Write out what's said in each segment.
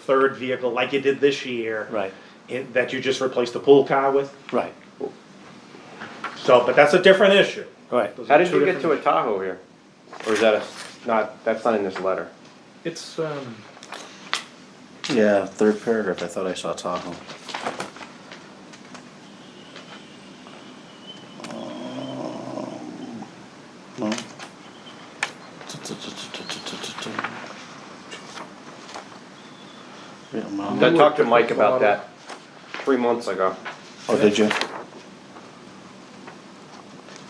third vehicle like you did this year. Right. in- that you just replaced the pool car with. Right, So, but that's a different issue. right. Those How are did two you get to a different- Tahoe here? Or is that a, not, that's not in this letter? It's, um, Yeah, third paragraph, I thought I saw Tahoe. Um, No. Yeah, I no. talked to Mike about that three months ago. Oh, did you?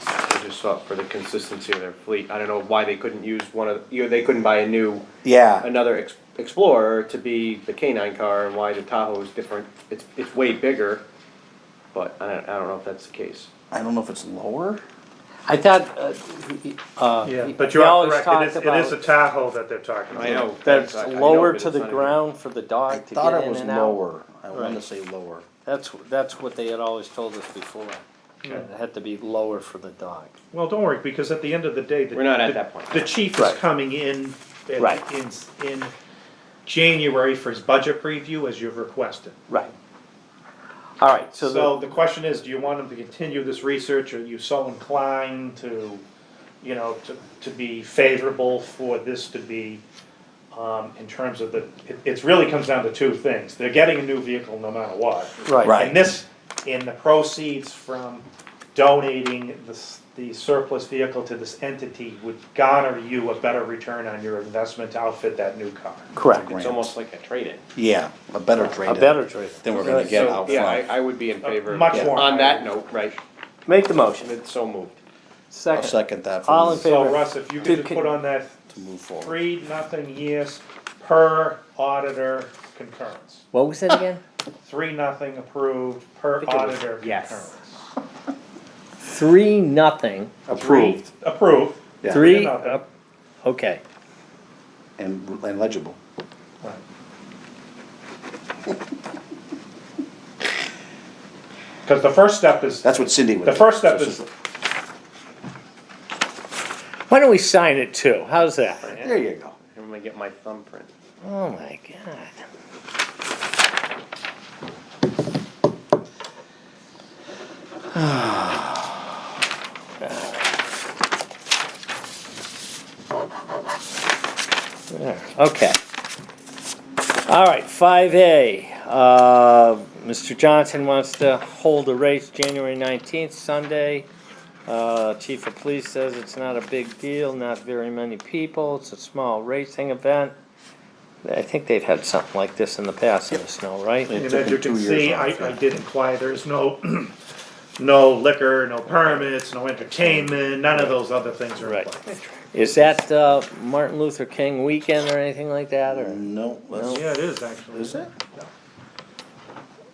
I just saw it for the consistency of their fleet. I don't know why they couldn't use one of, you know, they couldn't buy a new, Yeah, another Ex- Explorer to be the K9 car and why the Tahoe is different. It's, it's way bigger, but I don't, I don't know if that's the case. I don't know if it's lower. I thought, uh, he- uh. yeah, he- but you he are always correct, talked it is, it is a about Tahoe that they're talking about. know. That's I- I know, lower but to it's the not even- ground for the I dog to thought get it in was and out. lower. I wanted to Right. say lower. That's, that's what they had always told us before. It had to be lower for the dog. Well, don't worry, because at the end of the day. the- We're not at the- that point. The chief is Right. coming in, at- Right. in, in January for his budget review as you've requested. Right. All right, so So the, the question is, do you want him to continue this research, are you so inclined to, you know, to, to be favorable for this to be, um, in terms of the, it, it's really comes down to two things, they're getting a new vehicle no matter what. right. Right. And this, in the proceeds from donating this, the surplus vehicle to this entity would garner you a better return on your investment to outfit that new car. Correct. It's almost like a trade-in. Yeah, a better A trade better trade. than we're gonna get So, out Yeah, front. I, I would be in favor. Uh, Much more. On that note, right, Make the motion. it's so moved. I'll Second. second that All in for So favor? Russ, if you To could just con- put on that to move forward. Three, nothing, yes, per auditor concurrence. What was it again? Three, nothing approved, per think it was auditor yes. concurrence. Three, nothing. Approved Three, Approved. Yeah. Three, nothing. Okay. and and legible. Right. Cause the first step is, That's what Cindy would. the do. first step So is, she's- Why don't we sign it too? How's that? There you go. I'm gonna get my thumbprint. Oh my god. There, Okay. All right, five A, uh, Mr. Johnson wants to hold a race January nineteenth, Sunday. Uh, Chief of Police says it's not a big deal, not very many people, it's a small racing event. I think they've had something like this in the past in the snow, right? and took as you him two can years see, off, I, I yeah. did inquire, there's no, no liquor, no permits, no entertainment, none of those other things are in Right. play. Is that uh, Martin Luther King weekend or anything like that, or? No, that's- Yeah, it is actually. Is it?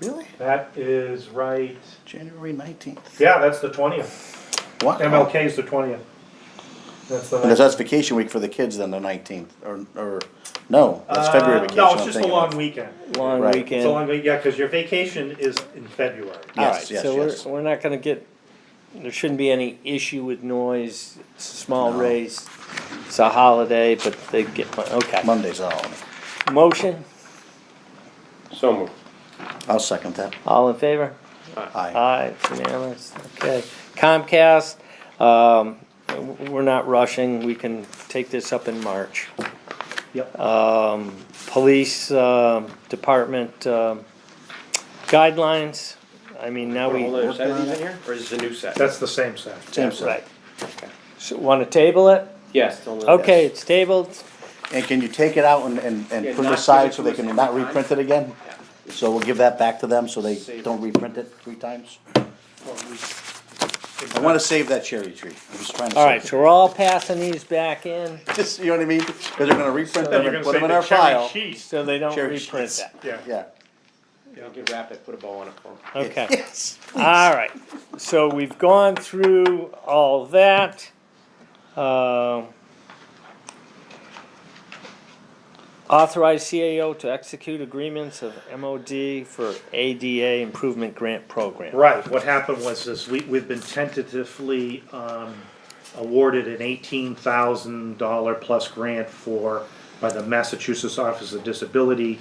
Really? That is right, January nineteenth. yeah, that's the twentieth. Wow. MLK is the twentieth. That's the. Because that's vacation week for the kids then, the nineteenth, or, or, no, that's February Uh, vacation. No, I'm it's just a thinking long of. weekend. Long Right. weekend. It's a long, week- yeah, cause your vacation is in February. All Yes, right, yes, so we're, yes. we're not gonna get, there shouldn't be any issue with noise, it's a small race. It's a holiday, but they get, one- okay. Monday's a holiday. Motion, So moved. I'll second that. all in favor? Uh, Aye. Aye, it's unanimous, okay. Comcast, um, w- we're not rushing, we can take this up in March. Yep. Um, police, um, department, um, guidelines, I mean, now we. Hold on, is that even here, or is this a new set? That's the same set. Same side. Right. So, wanna table it? Yes. it's on the- Okay, it's tabled. And can you take it out and, and, Yeah, and put not it give aside it so to they us can every not time. reprint it again? Yeah. So we'll give that back to them so they Save it. don't reprint it three times? I wanna save that cherry tree. I'm just trying to. All save right, it. so we're all passing these back in, Just, you know what I mean? Cause they're gonna reprint Then them you're and gonna put say them in the our cherry file. cheese. so they don't Cherry reprint sheets. that. Yeah. Yeah. You can wrap it, put a bow on it for me. Okay, Yes. all right. So we've gone through all that. Um, Authorize CAO to execute agreements of MOD for ADA Improvement Grant Program. Right, what happened was this, we, we've been tentatively, um, awarded an eighteen thousand dollar plus grant for, by the Massachusetts Office of Disability